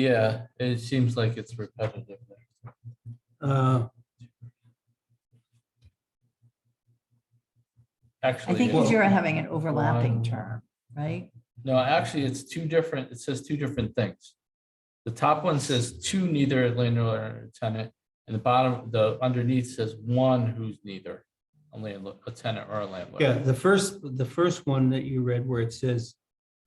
Yeah, it seems like it's repetitive. Uh, Actually. I think it's- because you're having an Wow. overlapping term, right? No, actually, it's two different, it says two different things. The top one says two neither a landlord or tenant, and the bottom, the underneath says one who's neither a landlord, a tenant or a landlord. yeah, the first, the first one that you read where it says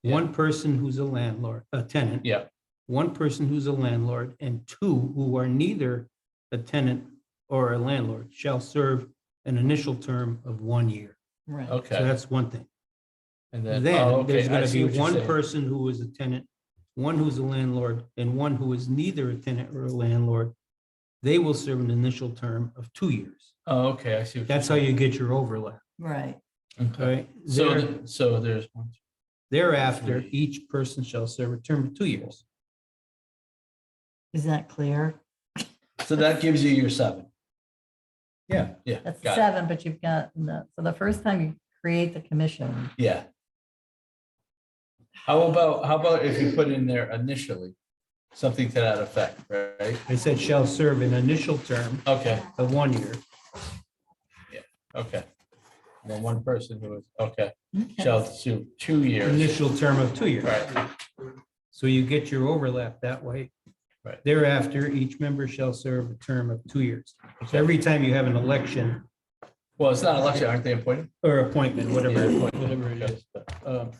one person who's a landlord, a tenant, Yeah, one person who's a landlord, and two who are neither a tenant or a landlord shall serve an initial term of one year. Right. So okay. that's one thing. And then, oh, Then okay, there's I gonna see be what you're one saying. person who is a tenant, one who's a landlord, and one who is neither a tenant or a landlord. They will serve an initial term of two years. Oh, okay, I see. what you're That's how you get your overlap, Right. all Okay. right? So, Uh, There- th- so there's, one, two, Thereafter, each person shall serve a term of two years. Is that clear? So that gives you your seven. Yeah, yeah. That's got it. seven, but you've got, the- so the first time you create the commission, yeah. How about, how about if you put in there initially, something to that effect, right? I said shall serve an initial term Okay, of one year. okay. And then one person who is, okay, shall sue two years. initial term of two years. Right, So you get your overlap that way. Right. Thereafter, each member shall serve a term of two years. So Okay. every time you have an election well, it's not election, aren't they appointed? or appointment, whatever, Yeah, appointed, whatever it okay. is, um,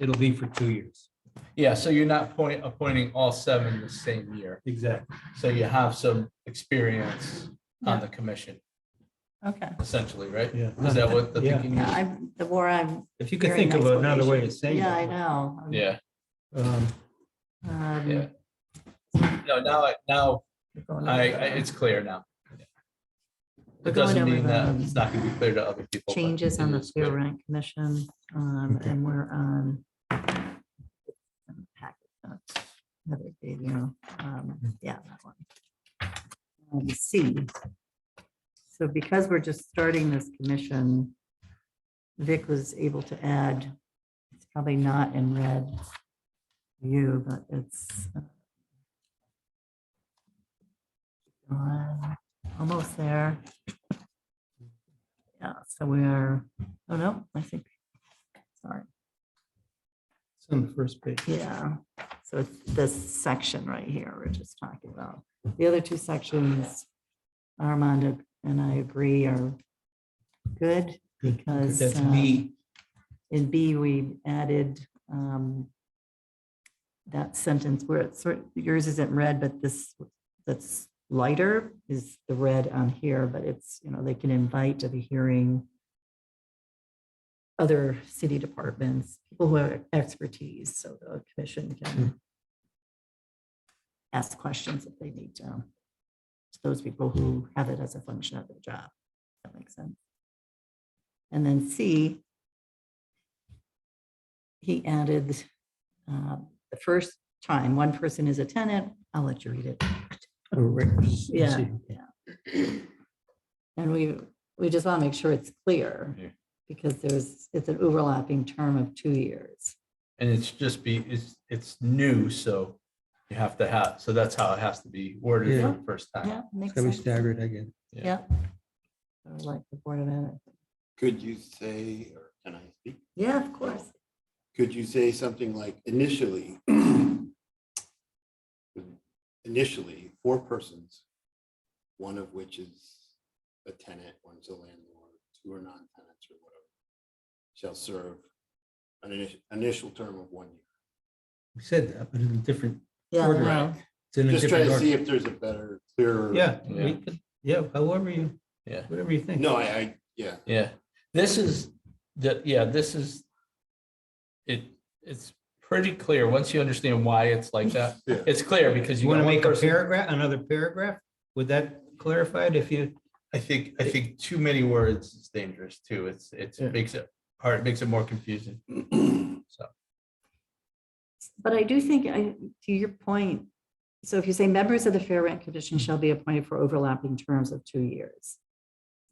it'll be for two years. Yeah, so you're not point, appointing all seven the same year, Exactly. so you have some experience on Yeah. the commission, okay. essentially, right? Yeah. Is that what the Yeah. thinking Yeah, is? I'm, the more I'm. If you could hearing think of another way of explanations- saying Yeah, I it. know. I'm- Yeah, um, um, yeah. No, now, I now, you're going I, I, over it's clear now. We're It going doesn't mean over that the it's not gonna be clear to other people. but Changes it on the is fair clear. rent commission, um, and we're on. Another video, um, yeah. that one. Um, C. So because we're just starting this commission, Vic was able to add, it's probably not in red view, but it's uh, uh, almost there. Yeah, so we are, oh no, I think, sorry, It's on the first page. yeah. So it's this section right here we're just talking about. The other two sections, Armand and I agree are good. Good. Because, um, That's me. In B, we added um, that sentence where it's sort, yours isn't red, but this, that's lighter is the red on here, but it's, you know, they can invite to the hearing other city departments, people who have expertise, so the commission can ask questions if they need to. To those people who have it as a function of their job. That makes sense. And then C, he added uh, the first time, one person is a tenant, I'll let you read it. Yeah, yeah. And we, we just want to make sure it's Yeah. clear because there's, it's an overlapping term of two years. And it's just be, it's, it's new, so you have to have, so that's how it has to be worded for the first time. Yeah, makes Gotta be sense. staggered again. Yeah. So Like the Board of Ed. Could you say, or can I speak? Yeah, of course. Could you say something like initially? Initially, four persons, one of which is a tenant, one's a landlord, two are non-tenants or whatever. Shall serve an initial, initial term of one year. We said that, but in a different. Yeah, Order. no, it's in a Just different trying order. to see if there's a better, clearer. Yeah, Yeah. we could, yeah, however you, Yeah. whatever you think. No, I, I, yeah, Yeah, this is, the, yeah, this is, it, it's pretty clear, once you understand why it's like that. Yeah. It's clear because you You want got to one make a person, paragraph, another paragraph? Would that clarify it if you, I think, I think too many words is dangerous too, it's, it's Yeah. makes it hard, makes it more confusing. So, But I do think, I, to your point, so if you say members of the Fair Rent Commission shall be appointed for overlapping terms of two years.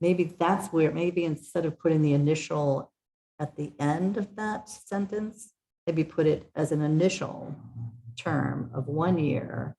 Maybe that's where, maybe instead of putting the initial at the end of that sentence, maybe put it as an initial term of one year